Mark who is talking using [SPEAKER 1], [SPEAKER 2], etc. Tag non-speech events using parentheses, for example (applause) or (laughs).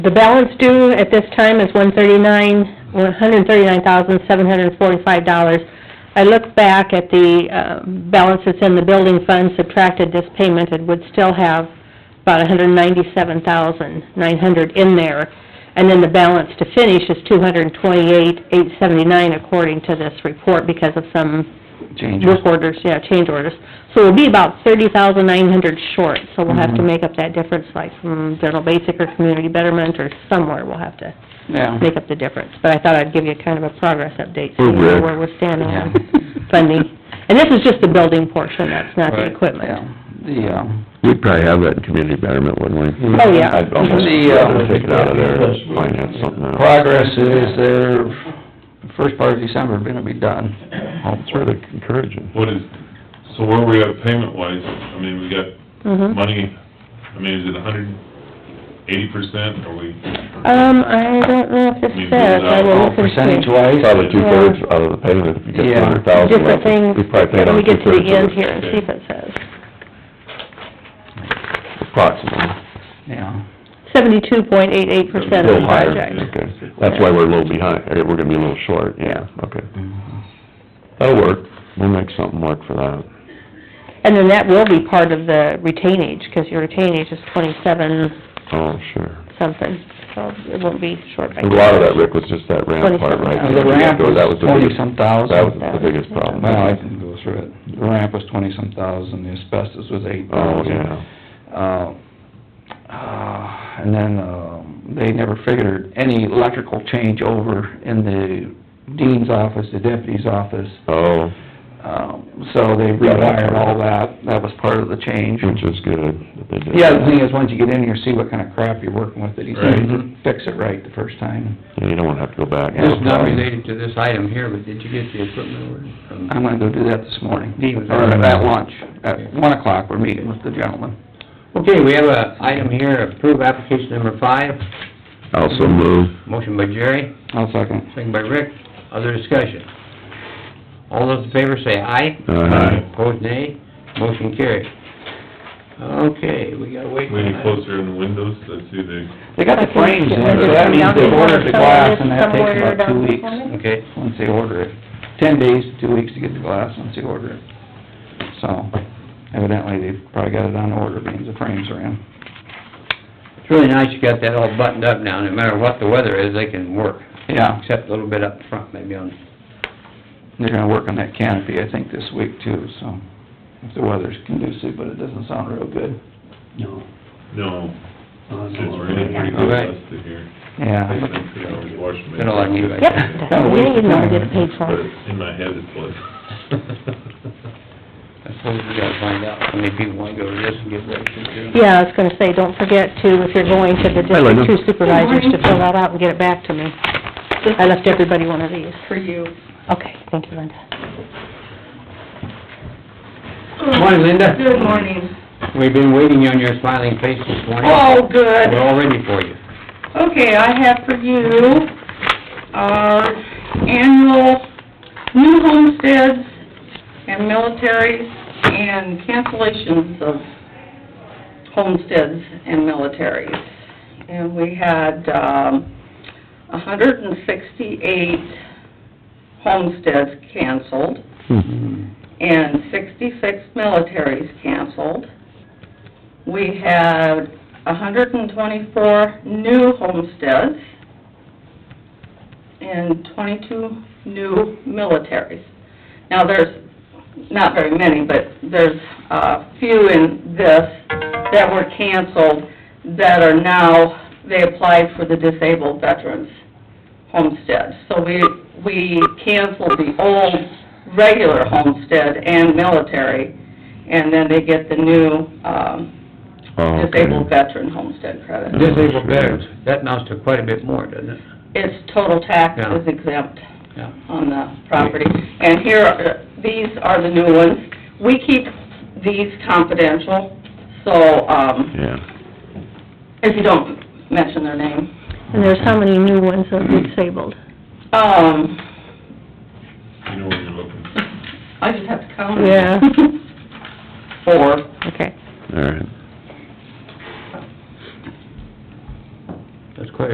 [SPEAKER 1] The balance due at this time is one thirty-nine, one hundred thirty-nine thousand, seven hundred forty-five dollars. I look back at the, uh, balance that's in the building fund, subtracted this payment, it would still have about a hundred ninety-seven thousand, nine hundred in there. And then the balance to finish is two hundred twenty-eight, eight seventy-nine according to this report because of some
[SPEAKER 2] changes.
[SPEAKER 1] work orders, yeah, change orders. So we'll be about thirty thousand nine hundred short, so we'll have to
[SPEAKER 2] Mhm.
[SPEAKER 3] Mm-hmm.
[SPEAKER 1] make up that difference, like from general basic or community betterment or somewhere, we'll have to
[SPEAKER 2] Yeah.
[SPEAKER 1] make up the difference. But I thought I'd give you kind of a progress update, so
[SPEAKER 3] Or
[SPEAKER 1] you know
[SPEAKER 3] Rick.
[SPEAKER 1] where we're standing on (laughs)
[SPEAKER 2] Yeah.
[SPEAKER 1] funding. And this is just the building portion, that's not the
[SPEAKER 2] Right,
[SPEAKER 1] equipment.
[SPEAKER 2] yeah. The, um,
[SPEAKER 3] We'd probably have that in community betterment, wouldn't we?
[SPEAKER 1] Oh, yeah.
[SPEAKER 3] I'd almost
[SPEAKER 2] The, uh,
[SPEAKER 3] rather take it out of there, and finance something else.
[SPEAKER 2] progress is there, first part of December, gonna be done.
[SPEAKER 3] That's really encouraging.
[SPEAKER 4] What is, so where we at payment wise, I mean, we got
[SPEAKER 1] Mhm.
[SPEAKER 4] money, I mean, is it a hundred eighty percent, or we?
[SPEAKER 1] Um, I don't know if this
[SPEAKER 4] Maybe
[SPEAKER 1] says, I will
[SPEAKER 3] Oh,
[SPEAKER 4] without
[SPEAKER 1] look
[SPEAKER 2] Percentage
[SPEAKER 1] into
[SPEAKER 2] wise,
[SPEAKER 3] Probably two-thirds out of the payment, if you get
[SPEAKER 2] Yeah.
[SPEAKER 3] two hundred thousand.
[SPEAKER 1] different things,
[SPEAKER 3] We probably paid
[SPEAKER 1] when we
[SPEAKER 3] on
[SPEAKER 1] get to
[SPEAKER 3] two-thirds of
[SPEAKER 1] the end
[SPEAKER 3] it,
[SPEAKER 1] here and see if it says.
[SPEAKER 3] Approximately.
[SPEAKER 2] yeah,
[SPEAKER 1] Seventy-two point eight eight percent of
[SPEAKER 3] Little
[SPEAKER 1] the
[SPEAKER 3] higher,
[SPEAKER 1] project.
[SPEAKER 3] Okay, that's why we're a little behind, or we're gonna be a little short, yeah, okay. Mm-hmm. That'll work, we'll make something work for that.
[SPEAKER 1] And then that will be part of the retainage, because your retainage is twenty-seven
[SPEAKER 3] Oh, sure.
[SPEAKER 1] something, so it won't be short by...
[SPEAKER 3] A lot of that, Rick, was just that ramp part, right?
[SPEAKER 2] And the ramp was
[SPEAKER 3] That was the biggest-
[SPEAKER 2] twenty-some thousand.
[SPEAKER 3] That was the biggest problem.
[SPEAKER 2] Well, I can go through it. The ramp was twenty-some thousand, the asbestos was eight
[SPEAKER 3] Oh,
[SPEAKER 2] thousand.
[SPEAKER 3] yeah.
[SPEAKER 2] Uh, uh, and then, um, they never figured any electrical change over in the dean's office, the deputy's office.
[SPEAKER 3] Oh,
[SPEAKER 2] Um, so they rewired all that, that was part of the change.
[SPEAKER 3] which is good that they did.
[SPEAKER 2] Yeah, the
[SPEAKER 3] that.
[SPEAKER 2] thing is, once you get in here, see what kind of crap you're working with, that he's
[SPEAKER 4] Right.
[SPEAKER 2] gonna fix it right the first time.
[SPEAKER 3] Yeah, you don't wanna have to go back.
[SPEAKER 5] This is not related to this item here, but did you get the equipment order from?
[SPEAKER 2] I'm gonna go do that this morning,
[SPEAKER 5] Dean was
[SPEAKER 2] or
[SPEAKER 5] on.
[SPEAKER 2] at lunch, at one o'clock, we're meeting with the gentleman.
[SPEAKER 5] Okay, we have a item here, approve application number five,
[SPEAKER 3] Also move.
[SPEAKER 5] motion by Jerry,
[SPEAKER 2] I'll second.
[SPEAKER 5] second by Rick, other discussion. All those in favor say aye.
[SPEAKER 3] Uh, Aye.
[SPEAKER 5] Opposed, nay, motion carried. Okay, we gotta wait.
[SPEAKER 4] We Any closer in the windows, let's see the,
[SPEAKER 2] They got the frames in, so that means they've ordered the glass, and that takes about two weeks,
[SPEAKER 5] Okay,
[SPEAKER 2] once they order it. Ten days, to two weeks to get the glass, once they order it. So evidently, they've probably got it on order, means the frames are in.
[SPEAKER 5] it's really nice you got that all buttoned up now, no matter what the weather is, they can work,
[SPEAKER 2] Yeah,
[SPEAKER 5] except a little bit up front, maybe on,
[SPEAKER 2] they're gonna work on that canopy, I think, this week too, so if the weather's conducive, but it doesn't sound real good.
[SPEAKER 6] No.
[SPEAKER 4] no,
[SPEAKER 6] uh,
[SPEAKER 4] it's
[SPEAKER 6] no,
[SPEAKER 4] raining pretty
[SPEAKER 5] All
[SPEAKER 4] good
[SPEAKER 5] right.
[SPEAKER 4] last here. I
[SPEAKER 2] Yeah.
[SPEAKER 4] spent three hours washing my.
[SPEAKER 5] Been a lot of you guys.
[SPEAKER 1] Yep, that's what we didn't want to get paid
[SPEAKER 4] But
[SPEAKER 1] for.
[SPEAKER 4] in my head it was.
[SPEAKER 5] I suppose we gotta find out how many people wanna go to this and get ready to do.
[SPEAKER 1] Yeah, I was gonna say, don't forget to, if you're going to the
[SPEAKER 3] Hi, Linda.
[SPEAKER 1] district two supervisors, to fill that out and get it back to me. I left everybody one of these.
[SPEAKER 7] for you.
[SPEAKER 1] Okay, thank you, Linda.
[SPEAKER 5] Morning, Linda.
[SPEAKER 7] Good morning.
[SPEAKER 5] We've been waiting on your smiling face this morning.
[SPEAKER 7] Oh, good.
[SPEAKER 5] We're all ready for you.
[SPEAKER 7] Okay, I have for you our annual new homesteads and militaries and cancellations of homesteads and militaries. And we had, um, hundred and sixty-eight homesteads canceled and sixty-six militaries canceled. We had hundred and twenty-four new homesteads and twenty-two new militaries. Now, there's not very many, but there's a few in this that were canceled that are now, they applied for the disabled veterans homestead. So we, we canceled the old regular homestead and military, and then they get the new, um,
[SPEAKER 3] Oh, okay.
[SPEAKER 7] disabled veteran homestead credit.
[SPEAKER 5] Disabled veterans, that amounts to quite a bit more, doesn't it?
[SPEAKER 7] It's total tax is
[SPEAKER 5] Yeah.
[SPEAKER 7] exempt
[SPEAKER 5] Yeah.
[SPEAKER 7] on the property. And here, are- these are the new ones. We keep these confidential, so, um,
[SPEAKER 3] Yeah.
[SPEAKER 7] if you don't mention their name.
[SPEAKER 1] And there's how many new ones that are disabled?
[SPEAKER 7] Um,
[SPEAKER 4] (laughs) You know where you're looking.
[SPEAKER 7] I just have to count. them.
[SPEAKER 1] Yeah.
[SPEAKER 7] (laughs) Four.
[SPEAKER 1] Okay.
[SPEAKER 3] All right.